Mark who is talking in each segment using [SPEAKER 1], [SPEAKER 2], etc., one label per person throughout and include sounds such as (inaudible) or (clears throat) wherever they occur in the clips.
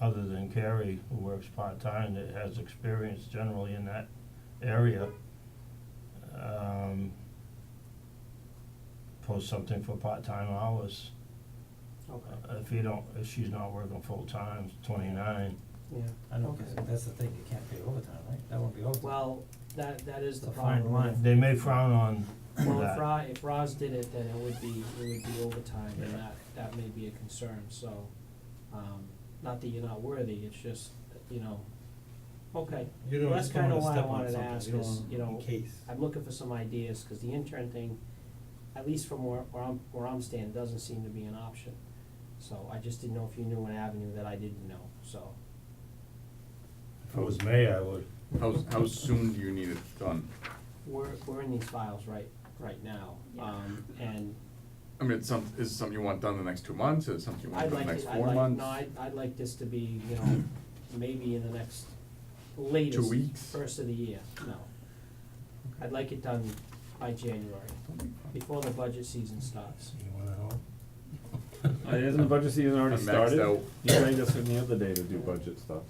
[SPEAKER 1] other than Carrie, who works part-time, that has experience generally in that area, um, post something for part-time hours.
[SPEAKER 2] Okay,
[SPEAKER 1] Uh, If you don't, if she's not working full-time, twenty-nine,
[SPEAKER 2] yeah,
[SPEAKER 3] I don't,
[SPEAKER 2] okay.
[SPEAKER 3] think- that's the thing, you can't pay overtime, right? That won't be overtime.
[SPEAKER 2] Well, that, that is the
[SPEAKER 3] It's a fine
[SPEAKER 2] problem.
[SPEAKER 3] line.
[SPEAKER 1] they may frown on that.
[SPEAKER 2] Well, if Ra, if Roz did it, then it would be, it would be overtime, and
[SPEAKER 1] Yeah.
[SPEAKER 2] that, that may be a concern, so, um, not that you're not worthy, it's just, you know, okay.
[SPEAKER 3] You don't
[SPEAKER 2] Well, that's
[SPEAKER 3] just don't
[SPEAKER 2] kinda
[SPEAKER 3] wanna
[SPEAKER 2] why I
[SPEAKER 3] step on
[SPEAKER 2] wanted to
[SPEAKER 3] something.
[SPEAKER 2] ask
[SPEAKER 3] You don't
[SPEAKER 2] is,
[SPEAKER 3] wanna-
[SPEAKER 2] you know,
[SPEAKER 3] in case.
[SPEAKER 2] I'm looking for some ideas, cause the intern thing, at least from where, where I'm, where I'm standing, doesn't seem to be an option. So I just didn't know if you knew an avenue that I didn't know, so.
[SPEAKER 4] If it was me, I would.
[SPEAKER 5] How, how soon do you need it done?
[SPEAKER 2] We're, we're in these files right, right now, um, and
[SPEAKER 5] I mean, it's some, is it something you want done in the next two months, is it something you want
[SPEAKER 2] I'd
[SPEAKER 5] done
[SPEAKER 2] like,
[SPEAKER 5] in the next
[SPEAKER 2] to- I'd
[SPEAKER 5] four
[SPEAKER 2] like,
[SPEAKER 5] months?
[SPEAKER 2] no, I'd, I'd like this to be, you know,
[SPEAKER 5] (clears throat)
[SPEAKER 2] maybe in the next latest.
[SPEAKER 5] weeks?
[SPEAKER 2] First of the year, no. I'd like it done by January, before the budget season starts.
[SPEAKER 4] You wanna help?
[SPEAKER 6] Uh, Isn't the budget season already
[SPEAKER 5] I'm maxed
[SPEAKER 6] started?
[SPEAKER 5] out.
[SPEAKER 6] You rang us in the other day to do budget stuff.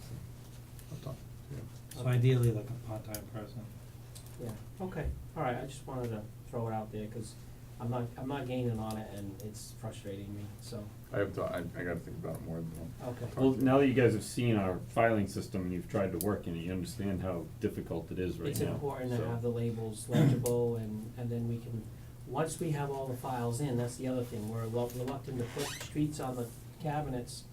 [SPEAKER 5] I'm done.
[SPEAKER 3] So ideally like a part-time person.
[SPEAKER 2] Yeah, okay, all right, I just wanted to throw it out there, cause I'm not, I'm not gaining on it and it's frustrating me, so,
[SPEAKER 5] I have to, I, I gotta think about it more than one.
[SPEAKER 2] okay.
[SPEAKER 6] Well, now that you guys have seen our filing system and you've tried to work in it, you understand how difficult it is right now.
[SPEAKER 2] It's important to
[SPEAKER 6] so-
[SPEAKER 2] have the
[SPEAKER 6] (clears throat)
[SPEAKER 2] labels legible and, and then we can, once we have all the files in, that's the other thing, we're relu- reluctant to put streets on the cabinets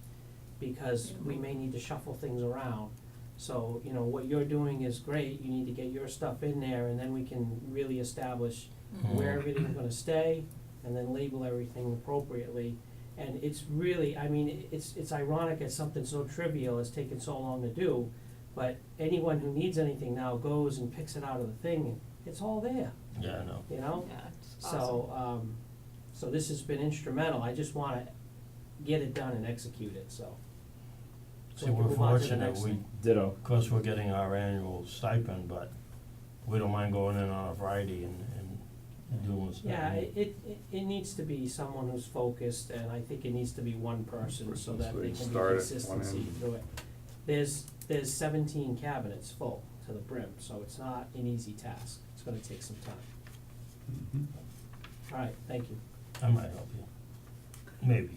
[SPEAKER 2] because we may need to shuffle things around. So, you know, what you're doing is great, you need to get your stuff in there and then we can really establish Mm-hmm. where everything's gonna stay and then label everything appropriately. And it's really, I mean, it's, it's ironic that something so trivial has taken so long to do, but anyone who needs anything now goes and picks it out of the thing, and it's all there,
[SPEAKER 1] Yeah, I know.
[SPEAKER 2] you know?
[SPEAKER 7] Yeah, it's awesome.
[SPEAKER 2] So, um, so this has been instrumental, I just wanna get it done and execute it, so. So
[SPEAKER 1] See,
[SPEAKER 2] we can
[SPEAKER 1] we're
[SPEAKER 2] move on to the
[SPEAKER 1] fortunate,
[SPEAKER 2] next
[SPEAKER 1] we,
[SPEAKER 2] thing.
[SPEAKER 6] Ditto.
[SPEAKER 1] of course, we're getting our annual stipend, but we don't mind going in on a Friday and,
[SPEAKER 3] Mm-hmm.
[SPEAKER 1] and doing something.
[SPEAKER 2] Yeah, it, it, it- it needs to be someone who's focused, and I think it needs to be one person, so
[SPEAKER 5] Person,
[SPEAKER 2] that
[SPEAKER 5] so
[SPEAKER 2] they
[SPEAKER 5] you
[SPEAKER 2] can be
[SPEAKER 5] start at one
[SPEAKER 2] consistency
[SPEAKER 5] end.
[SPEAKER 2] through it. There's, there's seventeen cabinets full to the brim, so it's not an easy task, it's gonna take some time.
[SPEAKER 5] Mm-hmm.
[SPEAKER 2] All right, thank you.
[SPEAKER 1] I might help you, maybe.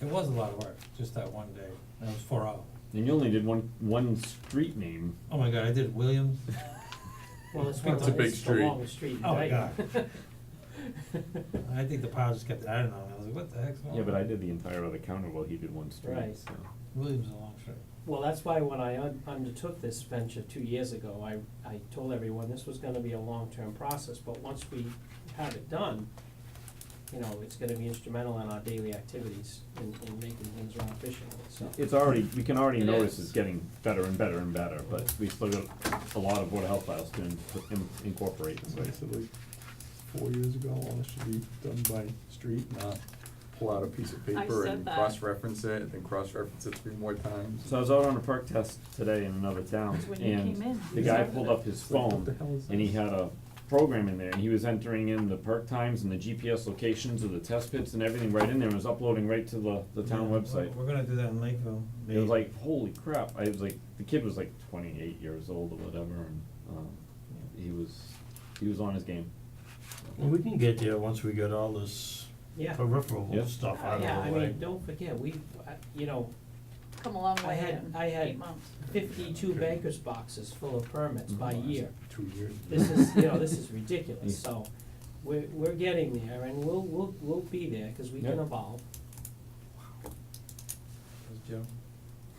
[SPEAKER 3] It was a lot of work, just that one day, that was four hours.
[SPEAKER 6] And you only did one, one street name.
[SPEAKER 3] Oh my god, I did Williams,
[SPEAKER 2] Well, it's one of
[SPEAKER 5] That's a
[SPEAKER 2] the,
[SPEAKER 5] big
[SPEAKER 2] it's the
[SPEAKER 5] street.
[SPEAKER 2] longest street,
[SPEAKER 3] Oh,
[SPEAKER 2] right?
[SPEAKER 3] God.
[SPEAKER 2] (laughs)
[SPEAKER 3] I think the power just kept, I don't know, I was like, what the heck's going on?
[SPEAKER 6] Yeah, but I did the entire other counter while he did one
[SPEAKER 2] Right.
[SPEAKER 6] street, so.
[SPEAKER 3] Williams is a long street.
[SPEAKER 2] Well, that's why when I un- undertook this venture two years ago, I, I told everyone this was gonna be a long-term process, but once we have it done, you know, it's gonna be instrumental in our daily activities in, in making things run efficiently, so.
[SPEAKER 6] It's already, we can already
[SPEAKER 7] It
[SPEAKER 6] notice
[SPEAKER 7] is.
[SPEAKER 6] it's getting better and better and better, but we still got a lot of Board of Health files to in- in- incorporate, so.
[SPEAKER 8] I said like four years ago, all this should be done by street, not
[SPEAKER 5] Pull out a piece of
[SPEAKER 7] I
[SPEAKER 5] paper
[SPEAKER 7] said
[SPEAKER 5] and
[SPEAKER 7] that.
[SPEAKER 5] cross-reference it, and then cross-reference it three more times.
[SPEAKER 6] So I was out on a perk test today in another town,
[SPEAKER 7] When you came
[SPEAKER 6] and
[SPEAKER 7] in,
[SPEAKER 6] the
[SPEAKER 7] you
[SPEAKER 6] guy
[SPEAKER 7] started
[SPEAKER 6] pulled
[SPEAKER 7] it.
[SPEAKER 6] up his phone,
[SPEAKER 7] (laughs)
[SPEAKER 6] and he had a program in there, and he was entering in the perk times and the GPS locations of the test pits and everything right in there, and was uploading right to the, the town
[SPEAKER 3] Yeah,
[SPEAKER 6] website.
[SPEAKER 3] We're we're gonna do that in Lakeville.
[SPEAKER 6] It was like, holy crap, I was like, the kid was like twenty-eight years old or whatever, and, um, he was, he was on his game.
[SPEAKER 1] Well, we can get there once we get all this
[SPEAKER 2] Yeah,
[SPEAKER 1] peripheral
[SPEAKER 6] Yeah.
[SPEAKER 1] stuff out of the way.
[SPEAKER 2] yeah, I mean, don't forget, we, I- you know,
[SPEAKER 7] Come a long
[SPEAKER 2] I
[SPEAKER 7] way
[SPEAKER 2] had-
[SPEAKER 7] in
[SPEAKER 2] I had
[SPEAKER 7] eight months.
[SPEAKER 2] fifty-two bankers boxes full of permits by year.
[SPEAKER 8] two years.
[SPEAKER 2] This is, you know, this is ridiculous, so we're, we're getting there and we'll, we'll, we'll be there, cause we can
[SPEAKER 6] Yeah.
[SPEAKER 2] evolve.
[SPEAKER 3] That's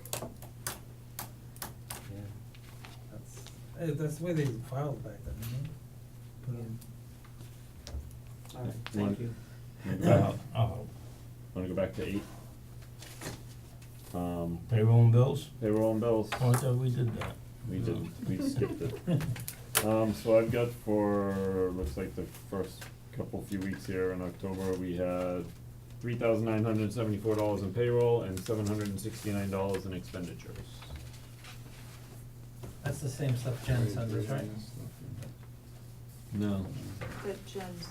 [SPEAKER 3] Joe. That's, eh, that's the way they filed back then, you know?
[SPEAKER 2] All right,
[SPEAKER 6] Wanna-
[SPEAKER 2] thank you.
[SPEAKER 6] Wanna go
[SPEAKER 1] Uh,
[SPEAKER 6] back-
[SPEAKER 1] uh,
[SPEAKER 6] wanna go back to eight? Um,
[SPEAKER 1] payroll and bills,
[SPEAKER 6] they were on bills.
[SPEAKER 1] oh, I thought we did that.
[SPEAKER 6] We did, we skipped it. Um, so I've got for, looks like the first couple few weeks here in October, we had three thousand nine hundred and seventy-four dollars in payroll and seven hundred and sixty-nine dollars in expenditures.
[SPEAKER 3] That's the same stuff Jen sent us, right?
[SPEAKER 6] No.
[SPEAKER 7] That Jen's